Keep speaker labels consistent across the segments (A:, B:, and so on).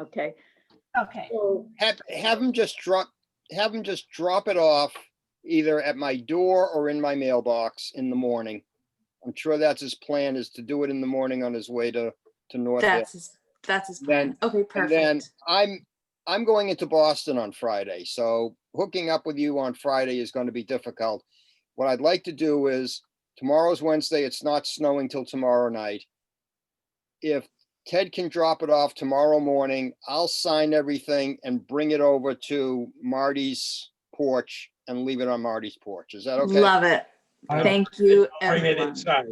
A: Okay,
B: Okay,
C: So Have, have them just drop, have them just drop it off either at my door or in my mailbox in the morning. I'm sure that's his plan is to do it in the morning on his way to, to North. Hill.
D: That's his, that's his
C: Then-
D: plan. Okay,
C: And then
D: perfect.
C: I'm, I'm going into Boston on Friday, so hooking up with you on Friday is going to be difficult. What I'd like to do is, tomorrow's Wednesday, it's not snowing till tomorrow night. If Ted can drop it off tomorrow morning, I'll sign everything and bring it over to Marty's porch and leave it on Marty's porch. Is that okay?
D: Love it.
E: I-
D: Thank you,
E: I'll Bring it
D: everyone.
E: inside.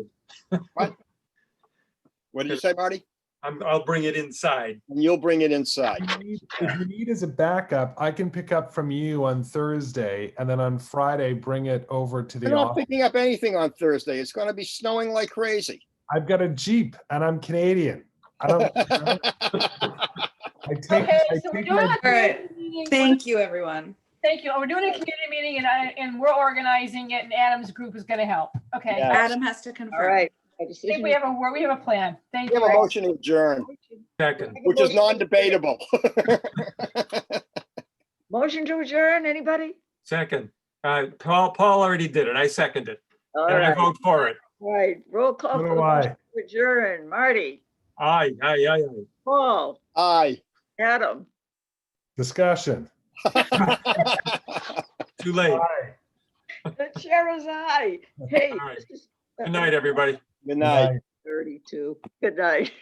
C: What did you say, Marty?
E: I'm, I'll bring it inside.
C: And You'll bring it inside.
E: Right.
F: If you need as a backup, I can pick up from you on Thursday and then on Friday, bring it over to
C: We're
F: the
C: not
F: office.
C: picking up anything on Thursday. It's going to be snowing like crazy.
F: I've got a Jeep and I'm Canadian. I don't, I take,
B: okay,
F: I
B: so we're doing
F: take my,
B: a community meeting. We're-
D: Thank you, everyone.
B: Thank you. Oh, We're doing a community meeting and I, and we're organizing it and Adam's group is gonna help. Okay.
C: Yeah.
B: I
D: Adam has to
A: all
D: confirm.
A: right. I just-
B: think we have a, we have a plan. Thank
C: We have a
B: you.
C: motion to adjourn,
E: Second,
C: which is non-debatable.
A: Motion to adjourn, anybody?
E: second. Uh, Paul, Paul already did it. I seconded.
A: All
E: And I
A: right,
E: vote for it.
A: all right, roll call.
F: So
A: for
F: do
A: the motion
F: I.
A: to Adjourn, Marty,
E: Aye, aye, aye, aye.
A: Paul,
C: Aye.
A: Adam,
F: discussion.
E: Too late.
A: the chair is I. Hey.
E: All right.
A: this is-
E: Good night, everybody.
C: Good night.
A: Thirty-two, good night.